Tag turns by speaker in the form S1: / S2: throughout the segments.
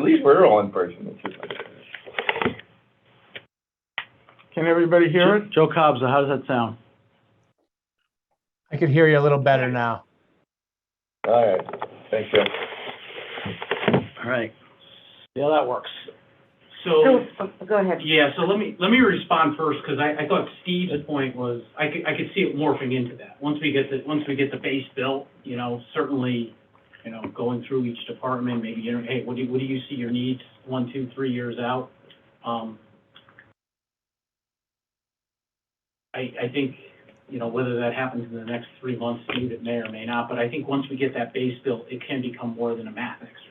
S1: least we're all in person. It's just-
S2: Can everybody hear it?
S3: Joe Cobza, how does that sound?
S4: I could hear you a little better now.
S1: All right, thanks, Joe.
S3: All right. See how that works.
S5: So,
S6: So, oh, go ahead.
S5: yeah, so let me, let me respond first, because I, I thought Steve's point was, I could, I could see it morphing into that. Once we get the, once we get the base built, you know, certainly, you know, going through each department, maybe, you know, hey, what do, you- what do you see your needs one, two, three years out? Um, I, I think, you know, whether that happens in the next three months, Steve, it may or may not, but I think once we get that base built, it can become more than a math exercise.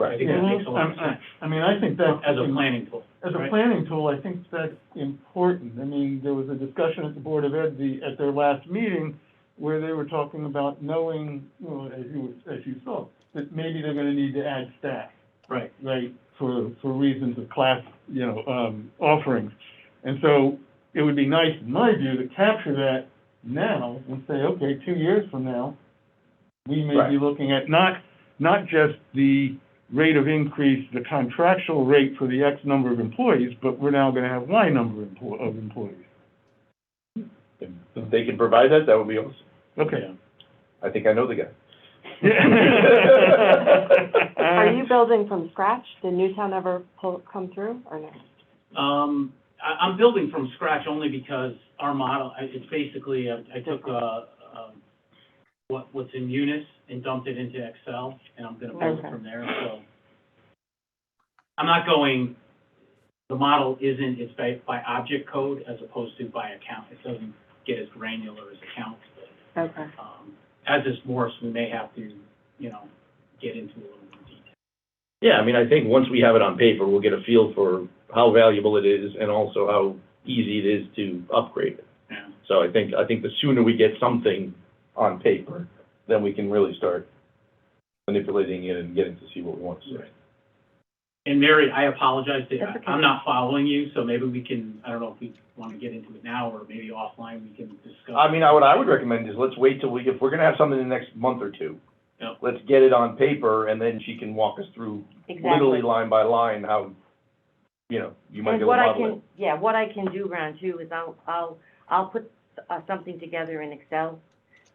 S5: I
S1: Right.
S5: think that makes a lot of
S2: Yeah.
S5: sense,
S2: I mean, I think that.
S5: as a planning tool.
S2: As
S5: right?
S2: a planning tool, I think that's important. I mean, there was a discussion at the Board of Ed, the, at their last meeting, where they were talking about knowing, you know, as you, as you saw, that maybe they're gonna need to add staff.
S5: Right.
S2: Right, for, for reasons of class, you know, um, offerings. And so it would be nice, in my view, to capture that now and say, okay, two years from now, we may be
S1: Right.
S2: looking at not, not just the rate of increase, the contractual rate for the X number of employees, but we're now gonna have Y number of emplo- of employees.
S1: If if they can provide that, that would be awesome.
S2: Okay.
S1: I think I know the guy.
S6: Are
S2: Uh,
S6: you building from scratch? Did Newtown ever pull, come through or no?
S5: Um, I, I'm building from scratch only because our model, I, it's basically, I, I took, uh, um, what, what's in Munis and dumped it into Excel, and I'm gonna build it
S6: Okay.
S5: from there, so. I'm not going, the model isn't, it's by, by object code as opposed to by account. It doesn't get as granular as accounts, but,
S6: Okay.
S5: um, as this morphs, we may have to, you know, get into a little more detail.
S7: Yeah, I mean, I think once we have it on paper, we'll get a feel for how valuable it is and also how easy it is to upgrade it.
S5: Yeah.
S7: So I think, I think the sooner we get something,
S1: On paper, then we can really start manipulating it and getting to see what we want to see.
S5: And Mary, I apologize, that
S6: That's
S5: I-
S6: okay.
S5: I'm not following you, so maybe we can, I don't know if we want to get into it now, or maybe offline, we can discuss.
S1: I mean, I- what I would recommend is let's wait till we, if we're gonna have something in the next month or two.
S5: Yep.
S1: Let's get it on paper and then she can walk us through literally line by line how, you know, you might be
S6: And
S1: able to
S6: what I
S1: model it.
S6: can, yeah, what I can do, Ron, too, is I'll, I'll, I'll put, uh, something together in Excel,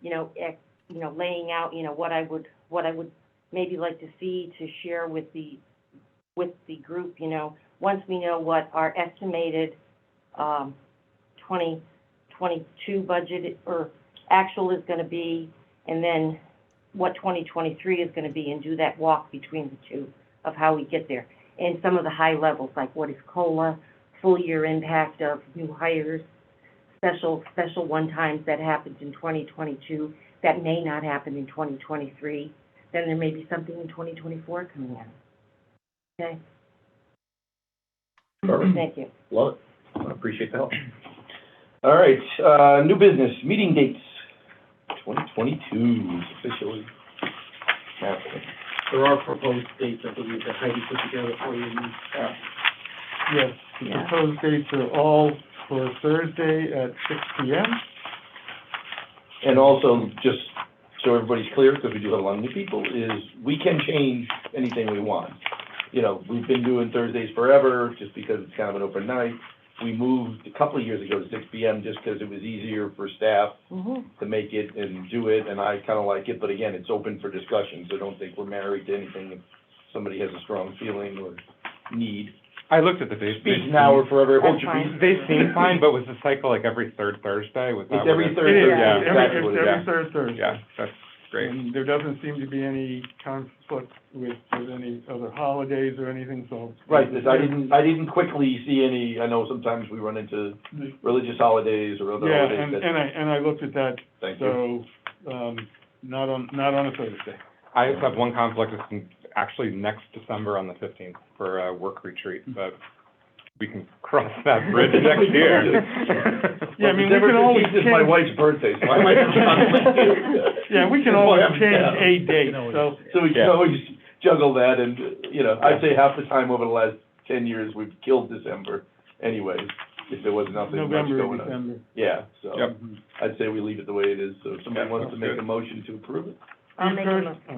S6: you know, ex, you know, laying out, you know, what I would, what I would maybe like to see to share with the, with the group, you know, once we know what our estimated, um, twenty, twenty-two budget or actual is gonna be, and then what twenty twenty-three is gonna be, and do that walk between the two of how we get there. And some of the high levels, like what is COLA, full year impact of new hires, special, special one-times that happened in 2022 that may not happen in 2023, then there may be something in 2024 coming out. Okay,
S1: Perfect.
S6: thank you.
S1: Love it. I appreciate the help. All right, uh, new business, meeting dates. Twenty twenty-two is officially. happening.
S5: There are proposed dates, I believe, that Heidi put together for you. uh,
S2: Yes, the
S6: Yeah.
S2: proposed dates are all for Thursday at six P M.
S1: And also, just so everybody's clear, because we do have a lot of new people, is we can change anything we want. You know, we've been doing Thursdays forever, just because it's kind of an open night. We moved a couple of years ago to six P M, just because it was easier for staff
S6: Mhm.
S1: to make it and do it, and I kind of like it, but again, it's open for discussion, so don't think we're married to anything. If somebody has a strong feeling or need,
S8: I looked at the dates. They
S1: speak now or forever hold
S6: That's
S1: your
S6: fine.
S1: peace.
S8: They seem fine, but was the cycle like every third Thursday? Was that
S1: It's
S8: what
S1: every
S8: it-
S1: third
S2: It is,
S1: Thursday,
S2: it's
S1: exactly
S2: every,
S1: what it
S2: it's
S1: is.
S2: every third Thursday.
S8: Yeah, that's great.
S2: And there doesn't seem to be any conflict with, with any other holidays or anything, so.
S1: Right, 'cause I didn't, I didn't quickly see any, I know sometimes we run into religious holidays or other
S2: Yeah, and,
S1: holidays that,
S2: and I, and I looked at that,
S1: thank you.
S2: so, um, not on, not on a Thursday.
S8: I just have one conflict, it's in- actually next December on the fifteenth for a work retreat, but we can cross that bridge next year.
S2: Yeah, I
S1: Well,
S2: mean, we
S1: December
S2: can always
S1: 15th is my
S2: change-
S1: wife's birthday, so I might have conflict.
S2: Yeah, we can
S1: Boy,
S2: always
S1: I'm
S2: change
S1: down.
S2: a date, so,
S1: So we can
S8: Yeah.
S1: always juggle that and, you know, I'd say half the time over the last ten years, we've killed December anyways, if there was nothing much
S2: November,
S1: going on.
S2: December.
S1: Yeah, so
S8: Yep.
S1: I'd say we leave it the way it is, so if somebody
S8: Yeah,
S1: wants to
S8: sounds
S1: make a
S8: good.
S1: motion to approve it.
S6: I'll make a
S2: Encourage-
S6: motion.